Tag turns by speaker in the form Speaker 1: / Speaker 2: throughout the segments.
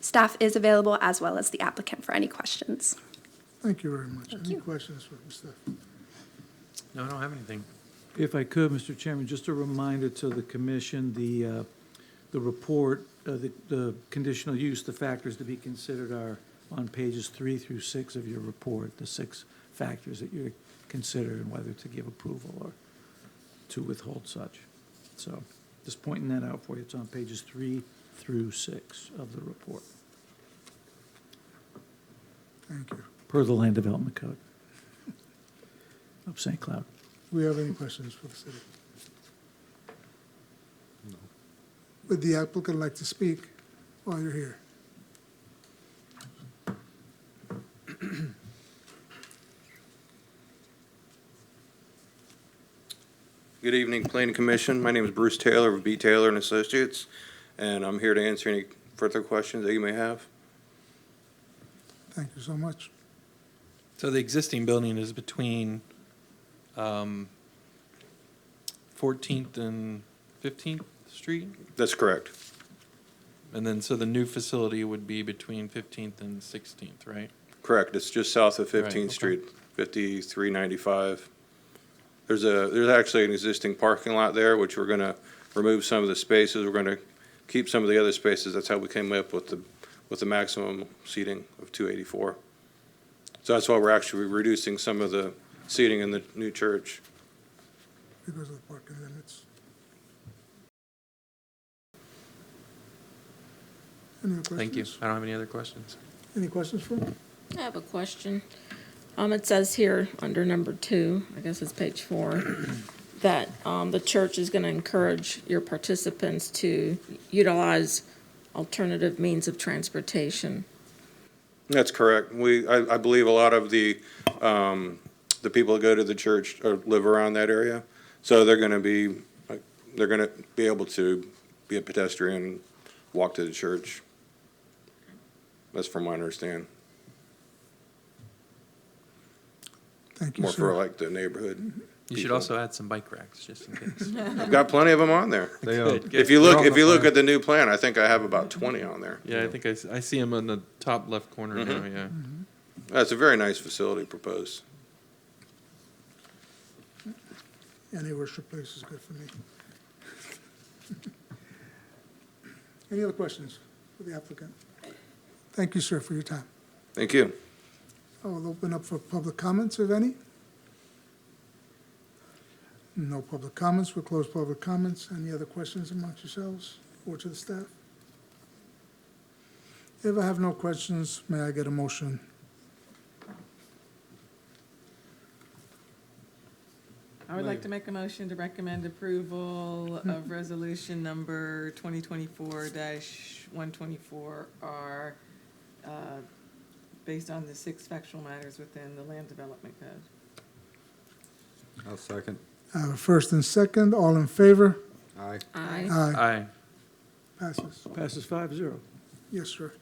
Speaker 1: Staff is available as well as the applicant for any questions.
Speaker 2: Thank you very much. Any questions for Mr.?
Speaker 3: No, I don't have anything.
Speaker 4: If I could, Mr. Chairman, just a reminder to the commission, the, uh, the report, uh, the, the conditional use, the factors to be considered are on pages three through six of your report, the six factors that you're considering whether to give approval or to withhold such. So just pointing that out for you. It's on pages three through six of the report,
Speaker 2: Thank you.
Speaker 4: per the Land Development Code of St. Cloud.
Speaker 2: Do we have any questions for the city? Would the applicant like to speak while you're here?
Speaker 5: Good evening, Planning Commission. My name is Bruce Taylor of B. Taylor and Associates, and I'm here to answer any further questions that you may have.
Speaker 2: Thank you so much.
Speaker 3: So the existing building is between um, 14th and 15th Street?
Speaker 5: That's correct.
Speaker 3: And then, so the new facility would be between 15th and 16th, right?
Speaker 5: Correct. It's just south of
Speaker 3: Right, okay.
Speaker 5: 15th Street, 5395. There's a, there's actually an existing parking lot there, which we're going to remove some of the spaces. We're going to keep some of the other spaces. That's how we came up with the, with the maximum seating of 284. So that's why we're actually reducing some of the seating in the new church.
Speaker 2: Because of the parking limits. Any other
Speaker 3: Thank you.
Speaker 2: questions?
Speaker 3: I don't have any other questions.
Speaker 2: Any questions for him?
Speaker 6: I have a question. Um, it says here, under number two, I guess it's page four, that, um, the church is gonna encourage your participants to utilize alternative means of transportation.
Speaker 5: That's correct. We, I, I believe a lot of the, um, the people that go to the church or live around that area. So they're gonna be, like, they're gonna be able to be a pedestrian, and walk to the church. That's from my understand,
Speaker 2: Thank you,
Speaker 5: more for
Speaker 2: sir.
Speaker 5: like the neighborhood.
Speaker 3: You should
Speaker 5: people.
Speaker 3: also add some bike racks, just in case.
Speaker 5: I've got plenty of them on there.
Speaker 7: They, uh,
Speaker 3: Good, good.
Speaker 5: If you
Speaker 7: They're
Speaker 5: look,
Speaker 7: on
Speaker 5: if
Speaker 7: the
Speaker 5: you look
Speaker 7: plan.
Speaker 5: at the new plan, I think I have about twenty on there.
Speaker 3: Yeah, I think I, s- I see them on the top left corner now,
Speaker 5: Mm-hmm.
Speaker 3: yeah.
Speaker 1: Mm-hmm.
Speaker 5: That's a very nice facility proposed.
Speaker 2: Any worship place is good for me. Any other questions for the applicant? Thank you, sir, for your time.
Speaker 5: Thank you.
Speaker 2: I will open up for public comments, if any. No public comments, we'll close public comments. Any other questions amongst yourselves or to the staff? If I have no questions, may I get a motion?
Speaker 8: I would like to make a motion to recommend approval of resolution number twenty twenty-four one twenty-four R, uh, based on the six factual matters within the land development code.
Speaker 7: I'll second.
Speaker 2: I have a Uh, first and second, all in favor?
Speaker 7: Aye.
Speaker 6: I,
Speaker 2: Aye,
Speaker 3: Aye.
Speaker 2: passes.
Speaker 4: Passes five zero.
Speaker 2: Yes, sir.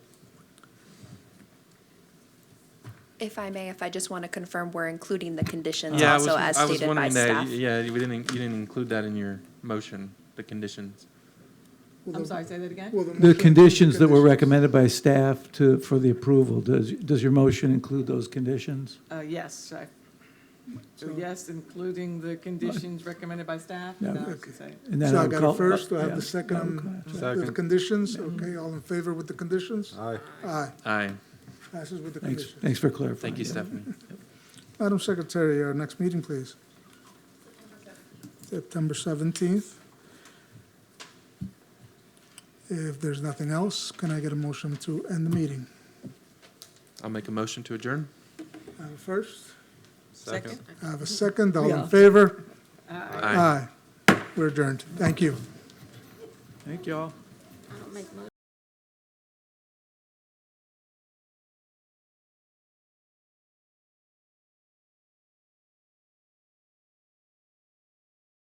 Speaker 1: If I may, if I just want to confirm, we're including the conditions
Speaker 3: Yeah, I was,
Speaker 1: also as
Speaker 3: I was
Speaker 1: stated by
Speaker 3: wondering that,
Speaker 1: staff.
Speaker 3: yeah, we didn't, you didn't include that in your motion, the conditions.
Speaker 2: Will
Speaker 8: I'm
Speaker 2: the-
Speaker 8: sorry, say that again?
Speaker 2: will motion
Speaker 4: The
Speaker 2: include
Speaker 4: conditions that were
Speaker 2: conditions?
Speaker 4: recommended by staff to, for the approval, does, does your motion include those conditions?
Speaker 8: Uh, yes, I, so
Speaker 2: So-
Speaker 8: yes, including the conditions recommended by staff?
Speaker 4: Yeah.
Speaker 8: No, I was gonna say-
Speaker 4: And then
Speaker 2: So I
Speaker 4: would
Speaker 2: got
Speaker 4: call-
Speaker 2: it first, do I have
Speaker 4: yeah, Mm-hmm.
Speaker 2: the
Speaker 4: I would call
Speaker 2: second, um,
Speaker 4: it.
Speaker 2: with the
Speaker 7: Second.
Speaker 2: conditions? Okay, all in favor with the conditions?
Speaker 7: Aye.
Speaker 2: Aye,
Speaker 3: Aye.
Speaker 2: passes with the
Speaker 4: Thanks,
Speaker 2: conditions.
Speaker 4: thanks for clarifying.
Speaker 3: Thank you,
Speaker 4: that.
Speaker 3: Stephanie.
Speaker 2: Madam Secretary, our next meeting, please. September 17th. If there's nothing else, can I get a motion to end the meeting?
Speaker 3: I'll make a motion to adjourn.
Speaker 2: I have a first,
Speaker 8: Second?
Speaker 2: I have a second, all
Speaker 8: Yeah.
Speaker 2: in favor?
Speaker 3: Aye.
Speaker 2: Uh, Aye. We're adjourned. Thank you.
Speaker 4: Thank you all.
Speaker 6: I don't make motions.